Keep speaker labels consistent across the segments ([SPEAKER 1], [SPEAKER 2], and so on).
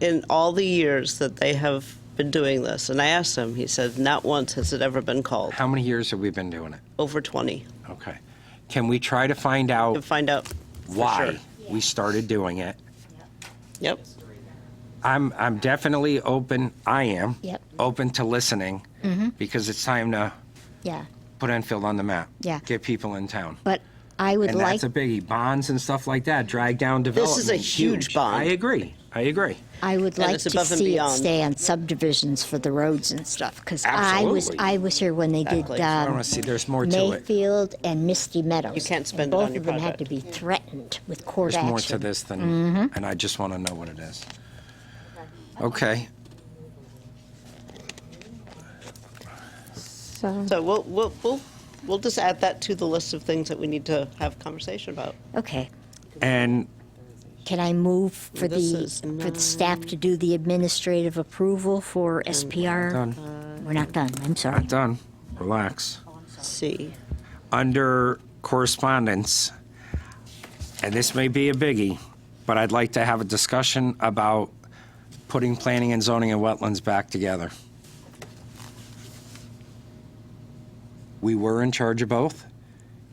[SPEAKER 1] in all the years that they have been doing this, and I asked him, he said, not once has it ever been called.
[SPEAKER 2] How many years have we been doing it?
[SPEAKER 1] Over 20.
[SPEAKER 2] Okay. Can we try to find
[SPEAKER 1] To
[SPEAKER 2] out
[SPEAKER 1] find out. for
[SPEAKER 2] why
[SPEAKER 1] sure.
[SPEAKER 2] we started doing it?
[SPEAKER 1] Yep.
[SPEAKER 2] I'm, I'm definitely open, I am.
[SPEAKER 3] Yep. Mm-hmm.
[SPEAKER 2] Open to listening, because it's time to
[SPEAKER 3] Yeah,
[SPEAKER 2] put Enfield on the map.
[SPEAKER 3] Yeah.
[SPEAKER 2] Get people in town.
[SPEAKER 3] but I would
[SPEAKER 2] And
[SPEAKER 3] like,
[SPEAKER 2] that's a biggie, bonds and stuff like that, drag down development.
[SPEAKER 1] is a huge bond.
[SPEAKER 2] I agree, I agree.
[SPEAKER 3] I would
[SPEAKER 1] and
[SPEAKER 3] like
[SPEAKER 1] it's
[SPEAKER 3] to
[SPEAKER 1] above and
[SPEAKER 3] see it
[SPEAKER 1] beyond.
[SPEAKER 3] stay on subdivisions for the roads and stuff, because I was,
[SPEAKER 2] Absolutely.
[SPEAKER 3] I was here when they did
[SPEAKER 1] Exactly.
[SPEAKER 2] I
[SPEAKER 3] um,
[SPEAKER 2] want to see, there's more to it.
[SPEAKER 3] Mayfield and Misty Meadows.
[SPEAKER 1] You can't
[SPEAKER 3] and
[SPEAKER 1] spend it on your
[SPEAKER 3] Both of them had to
[SPEAKER 1] project.
[SPEAKER 3] be threatened with court
[SPEAKER 2] There's
[SPEAKER 3] action.
[SPEAKER 2] more to this
[SPEAKER 3] Mm-hmm.
[SPEAKER 2] than, and I just want to know what it is. Okay,
[SPEAKER 3] So,
[SPEAKER 1] So we'll, we'll, we'll, we'll just add that to the list of things that we need to have conversation about.
[SPEAKER 3] okay.
[SPEAKER 2] and
[SPEAKER 3] Can I move for
[SPEAKER 1] This
[SPEAKER 3] the,
[SPEAKER 1] is
[SPEAKER 3] for the staff to do the administrative approval for SPR? We're not done, I'm sorry.
[SPEAKER 2] done, relax.
[SPEAKER 1] See.
[SPEAKER 2] Under correspondence, and this may be a biggie, but I'd like to have a discussion about putting planning and zoning and wetlands back together. We were in charge of both.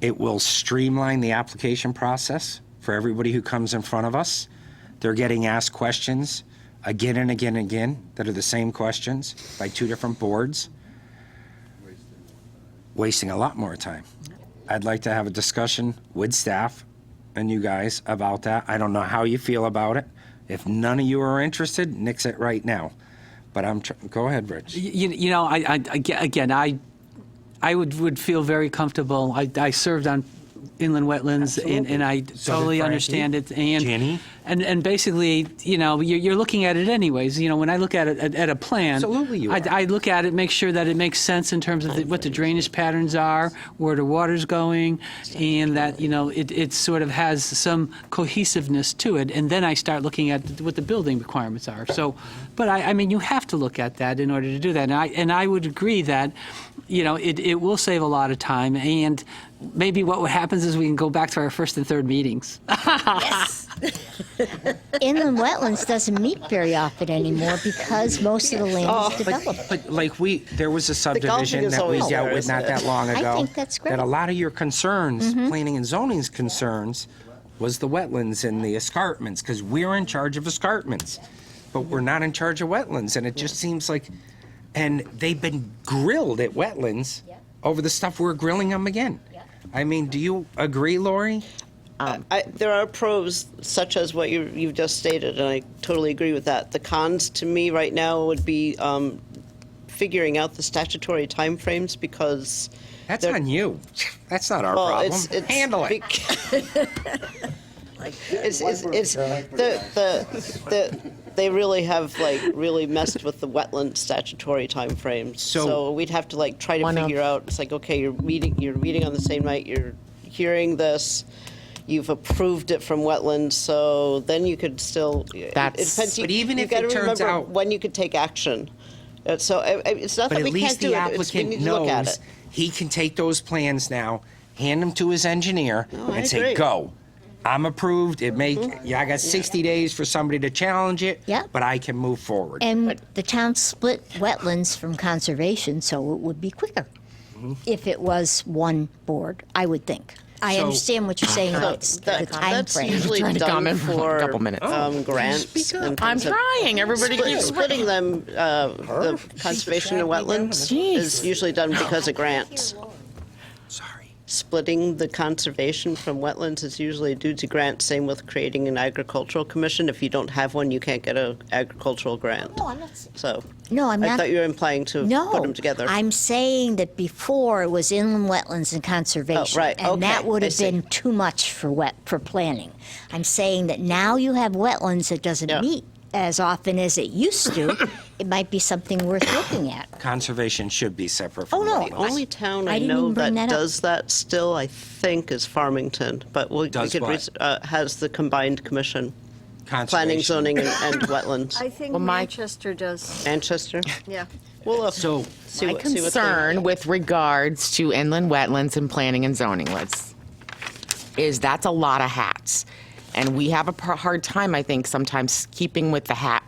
[SPEAKER 2] It will streamline the application process for everybody who comes in front of us. They're getting asked questions again and again and again that are the same questions by two different boards, wasting a lot more time. I'd like to have a discussion with staff and you guys about that. I don't know how you feel about it. If none of you are interested, nix it right now. But I'm, tr- go ahead, Rich.
[SPEAKER 4] You, you know, I, I, aga- again, I, I would, would feel very comfortable. I, I served on inland wetlands and, and I
[SPEAKER 2] So did
[SPEAKER 4] totally
[SPEAKER 2] Frankie,
[SPEAKER 4] understand it. And,
[SPEAKER 2] Jenny.
[SPEAKER 4] and, and basically, you know, you're, you're looking at it anyways. You know, when I look at it, at, at a plan.
[SPEAKER 2] Absolutely you
[SPEAKER 4] I,
[SPEAKER 2] are.
[SPEAKER 4] I look at it, make sure that it makes sense in terms of the, what the drainage patterns are, where the water's going, and that, you know, it, it sort of has some cohesiveness to it. And then I start looking at what the building requirements are. So, but I, I mean, you have to look at that in order to do that. And I, and I would agree that, you know, it, it will save a lot of time. And maybe what happens is we can go back to our first and third meetings.
[SPEAKER 3] Inland wetlands doesn't meet very often anymore because most of the
[SPEAKER 1] Oh,
[SPEAKER 3] land is developed.
[SPEAKER 2] But like we, there was a subdivision
[SPEAKER 1] is
[SPEAKER 2] that we
[SPEAKER 1] always
[SPEAKER 2] dealt
[SPEAKER 1] there,
[SPEAKER 2] with
[SPEAKER 1] isn't
[SPEAKER 2] not
[SPEAKER 1] it?
[SPEAKER 2] that long
[SPEAKER 3] I
[SPEAKER 2] ago.
[SPEAKER 3] think that's
[SPEAKER 2] That a
[SPEAKER 3] great.
[SPEAKER 2] lot of your concerns,
[SPEAKER 1] Mm-hmm.
[SPEAKER 2] planning and zoning's concerns, was the wetlands and the escarpments, because we're in charge of escarpments. But we're not in charge of wetlands, and it just seems like, and they've been grilled at wetlands over the stuff we're grilling them again. I mean, do you agree, Lori?
[SPEAKER 1] I, there are pros such as what you, you've just stated, and I totally agree with that. The cons to me right now would be um, figuring out the statutory timeframes because
[SPEAKER 2] That's
[SPEAKER 1] They're-
[SPEAKER 2] on you. That's not our
[SPEAKER 1] well,
[SPEAKER 2] problem.
[SPEAKER 1] it's, it's
[SPEAKER 2] Handle it.
[SPEAKER 1] bec- it's it's, it's the, the, the, they really have like really messed with the wetland statutory timeframes.
[SPEAKER 2] So-
[SPEAKER 1] we'd have to like try to
[SPEAKER 5] One of-
[SPEAKER 1] figure out. It's like okay, you're meeting you're meeting on the same night. You're hearing this. You've approved it from wetlands, so then you could still. it
[SPEAKER 5] That's-
[SPEAKER 1] depends. You,
[SPEAKER 2] But even
[SPEAKER 1] you
[SPEAKER 2] if it
[SPEAKER 1] gotta
[SPEAKER 2] turns
[SPEAKER 1] remember
[SPEAKER 2] out-
[SPEAKER 1] when you could take action. Uh, So I- I- it's not
[SPEAKER 2] But
[SPEAKER 1] that we
[SPEAKER 2] at least
[SPEAKER 1] can't do
[SPEAKER 2] the
[SPEAKER 1] it. It's, we
[SPEAKER 2] applicant
[SPEAKER 1] need to look at
[SPEAKER 2] knows
[SPEAKER 1] it.
[SPEAKER 2] he can take those plans now, hand them to his engineer,
[SPEAKER 1] I
[SPEAKER 2] and say,
[SPEAKER 1] agree. Mm-hmm.
[SPEAKER 2] go. I'm approved, it may, yeah, I got 60 days for somebody to challenge it,
[SPEAKER 3] Yep.
[SPEAKER 2] but I can move forward.
[SPEAKER 3] And the town split wetlands from conservation, so it would be quicker
[SPEAKER 1] Mm-hmm.
[SPEAKER 3] if it was one board, I would think. I
[SPEAKER 2] So-
[SPEAKER 3] understand what you're saying about the
[SPEAKER 1] That- that's
[SPEAKER 3] timeframe.
[SPEAKER 1] usually
[SPEAKER 5] Trying to
[SPEAKER 1] done
[SPEAKER 5] comment for
[SPEAKER 1] for
[SPEAKER 5] a couple minutes.
[SPEAKER 1] um, grants.
[SPEAKER 2] speak up?
[SPEAKER 1] and
[SPEAKER 5] I'm
[SPEAKER 1] things of-
[SPEAKER 5] trying. Everybody
[SPEAKER 1] Split-
[SPEAKER 5] keeps
[SPEAKER 1] Splitting them, uh, the conservation and wetlands is
[SPEAKER 5] Jeez.
[SPEAKER 1] usually done because of grants.
[SPEAKER 2] Sorry.
[SPEAKER 1] Splitting the conservation from wetlands is usually due to grants, same with creating an agricultural commission. If you don't have one, you can't get an agricultural grant.
[SPEAKER 3] No, I'm not-
[SPEAKER 1] So,
[SPEAKER 3] No, I'm
[SPEAKER 1] I
[SPEAKER 3] not.
[SPEAKER 1] thought you were implying to
[SPEAKER 3] No,
[SPEAKER 1] put them together.
[SPEAKER 3] I'm saying that before it was inland wetlands and
[SPEAKER 1] Oh,
[SPEAKER 3] conservation,
[SPEAKER 1] right,
[SPEAKER 3] and that
[SPEAKER 1] okay,
[SPEAKER 3] would
[SPEAKER 1] I
[SPEAKER 3] have
[SPEAKER 1] see.
[SPEAKER 3] been too much for wet for planning. I'm saying that now you have wetlands that doesn't
[SPEAKER 1] Yeah.
[SPEAKER 3] meet as often as it used to. it might be something worth looking at.
[SPEAKER 2] Conservation should be separate from
[SPEAKER 3] Oh, no.
[SPEAKER 2] wetlands.
[SPEAKER 1] The only town
[SPEAKER 3] I
[SPEAKER 1] I
[SPEAKER 3] didn't
[SPEAKER 1] know
[SPEAKER 3] even
[SPEAKER 1] that
[SPEAKER 3] bring that up.
[SPEAKER 1] does that still, I think, is Farmington, but we we
[SPEAKER 2] Does
[SPEAKER 1] could,
[SPEAKER 2] what?
[SPEAKER 1] res- uh, has the combined commission, planning,
[SPEAKER 2] Conservation.
[SPEAKER 1] zoning, and and wetlands.
[SPEAKER 6] I think
[SPEAKER 5] Well, my-
[SPEAKER 6] Manchester does,
[SPEAKER 1] Manchester?
[SPEAKER 6] yeah.
[SPEAKER 1] We'll look.
[SPEAKER 2] So-
[SPEAKER 1] see
[SPEAKER 5] My
[SPEAKER 1] what- see what they-
[SPEAKER 5] concern with regards to inland wetlands and planning and zoning lists is that's a lot of hats. And we have a par- hard time, I think, sometimes keeping with the hat